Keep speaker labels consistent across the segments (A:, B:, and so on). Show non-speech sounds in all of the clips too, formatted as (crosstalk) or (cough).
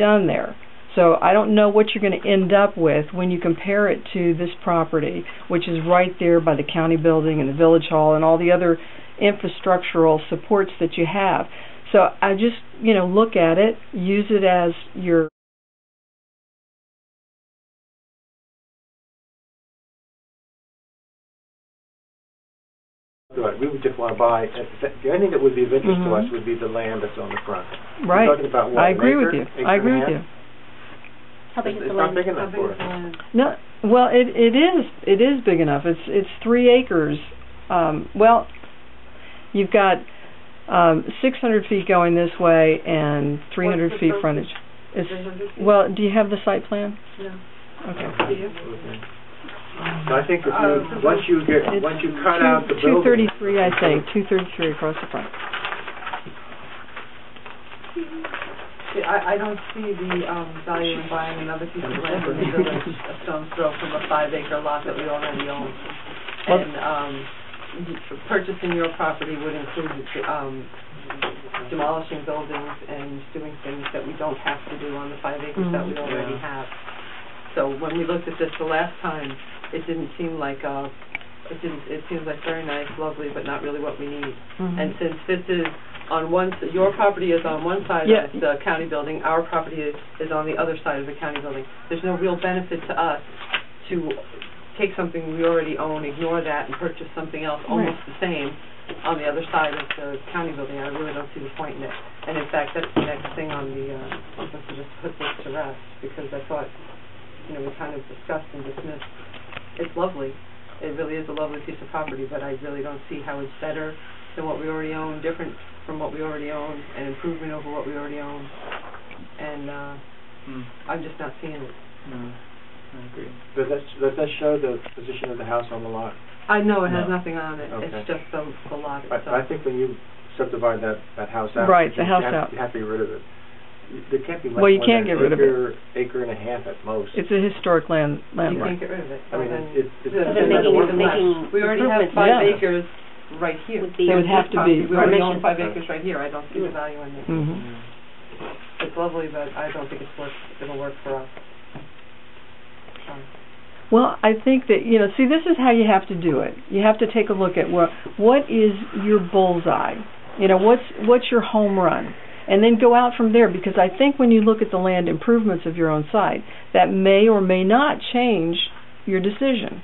A: done there. So I don't know what you're going to end up with when you compare it to this property, which is right there by the county building and the village hall and all the other infrastructural supports that you have. So I just, you know, look at it, use it as your
B: Right, we would just want to buy, uh, the only thing that would be of interest to us would be the land that's on the front.
A: Mm-hmm. right.
B: We're talking about what,
A: I
B: an
A: agree with
B: acre,
A: you. I
B: acre and a
A: agree with
B: half?
A: you.
C: How big
B: It's-
C: is the
B: it's not
C: land?
B: big enough for it.
A: No, well, it it is it is big enough. It's it's three acres. Um, well, you've got um, 600 feet going this way and 300
D: What's the
A: feet
D: frontage?
A: frontage. It's,
D: feet?
A: well, do you have the site plan?
D: No.
A: Okay.
B: Okay. So I think if
D: Uh,
B: you, once you get,
A: It's
B: once you cut out the
A: Two
B: building.
A: thirty-three, I think, two thirty-three across the front.
D: See, I, I don't see the, um, value in buying another piece of land in the village, a stone's throw from a five acre lot that we already own.
A: Well-
D: And, um, y- purchasing your property would include, um, demolishing buildings and doing things that we don't have to do on the five acres that we
A: Mhm.
D: already
B: Yeah.
D: have. So when we looked at this the last time, it didn't seem like, uh, it didn't, it seems like very nice, lovely, but not really what we need.
A: Mm-hmm.
D: And since this is on one, s- your property is on one side
A: Yeah.
D: of the county building, our property is is on the other side of the county building. There's no real benefit to us to take something we already own, ignore that, and purchase something else almost the same on the other side of the county building. I really don't see the point in it. And in fact, that's the next thing on the, uh, I'm supposed to just put this to rest, because I thought, you know, we kind of discussed and dismissed. It's lovely. It really is a lovely piece of property, but I really don't see how it's better than what we already own, different from what we already own, an improvement over what we already own. And, uh,
B: Hmm.
D: I'm just not seeing it.
B: Does that, does that show the position of the house on the lot?
D: I know it has
E: No.
D: nothing on it,
B: Okay.
D: it's just the, the lot
B: I, I
D: itself.
B: think when you subdivide that, that house out.
A: Right, the
B: you
A: house
B: have-
A: out.
B: You have to get rid of it. You- There can't be much
A: Well, you
B: more
A: can't
B: than
A: get rid of it.
B: acre, Acre and a half at most.
A: mm-hmm. It's a historic land
D: You
A: landmark.
D: can't get rid of it.
B: I mean,
D: Well,
B: it's-
D: then-
B: it's-
D: then
B: it's-
D: there's
B: making-
D: nothing left.
C: making
D: We already have
C: improvements
D: five
A: Yeah.
D: acres right here.
C: Would be-
A: They would have to be
D: We already own
C: permission.
D: five acres right here, I don't see the value in it.
A: Mhm.
D: It's lovely, but I don't think it's worth, it'll work for us. Um,
A: Well, I think that you know. See, this is how you have to do it. You have to take a look at what what is your bullseye. You know, what's what's your home run, and then go out from there. Because I think when you look at the land improvements of your own site, that may or may not change your decision.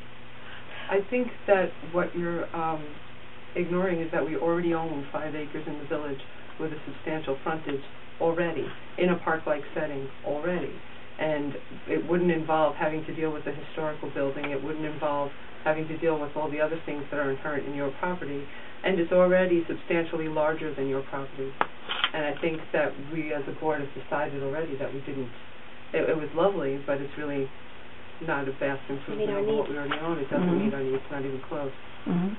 D: I think that what you're um, ignoring is that we already own five acres in the village with a substantial frontage already, in a park-like setting already. And it wouldn't involve having to deal with the historical building, it wouldn't involve having to deal with all the other things that are inherent in your property, and it's already substantially larger than your property. And I think that we as a board have decided already that we didn't, it, it was lovely, but it's really not a vast improvement
C: our
D: over what we already own, it doesn't
A: Mhm.
D: meet our needs, not even close.
A: Mm-hmm.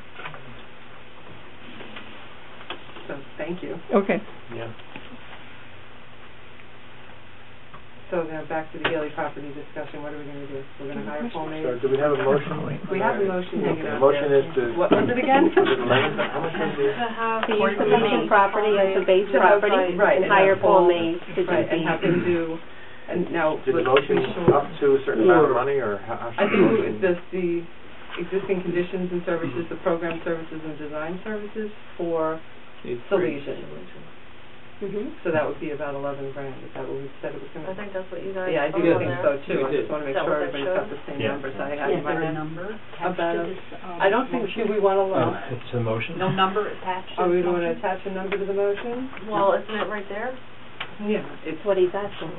D: So, thank you.
A: Okay.
B: Yeah.
D: So now back to the Haley property discussion, what are we gonna do? We're gonna hire Paul May?
B: So do we have a motion?
D: We have a motion hanging
B: The
D: out there.
B: motion is to.
D: What
B: (laughs)
D: was it again?
B: Was it land? How much was it?
C: To use the Mason property as the base
D: Right,
C: property
D: right,
C: and
D: and
C: hire
D: have Paul-
C: Paul Mays to do
D: Right, and have
C: the,
D: them do, and now.
B: Did the
D: let's be
B: motion
D: sure.
B: up to a certain amount of money, or how? how
D: I
B: should
D: think
B: motion-
D: it was the, the existing conditions and services, the program services and design services for Salesian.
C: Mhm.
D: So that would be about eleven grand, is that what we said it was gonna
F: I
D: be?
F: think that's what you guys.
D: Yeah, I do think
F: voted on.
D: so too, I just wanna make
F: Is that
D: sure
F: what that
D: everybody's got the same
E: Yeah.
D: numbers I have in my head.
F: number
D: About, I don't think, do
B: Oh.
D: we wanna look?
E: It's a motion?
F: number attached
C: Oh,
D: Are we going to attach a number to the motion?
F: Well, isn't it right there?
D: Yeah. It's
C: that's what he's
D: (coughs)
C: asking.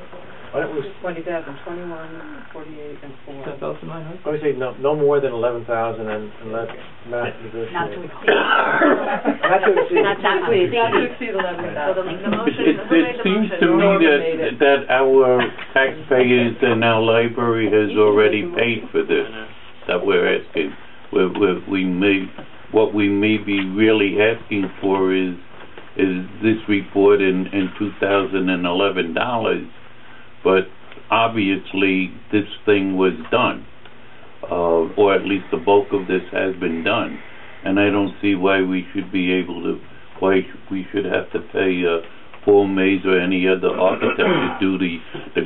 B: Why don't we,
D: twenty thousand, twenty-one, forty-eight, and four.
B: why don't we say no, no more than eleven thousand and, and let Matt negotiate?
F: Not to exceed.
B: Not to exceed.
C: Not that
D: We
C: much.
D: have to exceed eleven
F: So the,
D: thousand.
F: the motion,
G: It,
F: who
G: it
F: made the
G: seems to
F: motion?
G: me
D: Whoever made
G: that,
D: it.
G: that our taxpayers and our library has already paid for this, that we're asking. We, we, we may, what we may be really asking for is, is this report in, in two thousand and eleven dollars. But obviously, this thing was done, uh, or at least the bulk of this has been done. And I don't see why we should be able to, why we should have to pay, uh, Paul Mays or any other architect to do the, the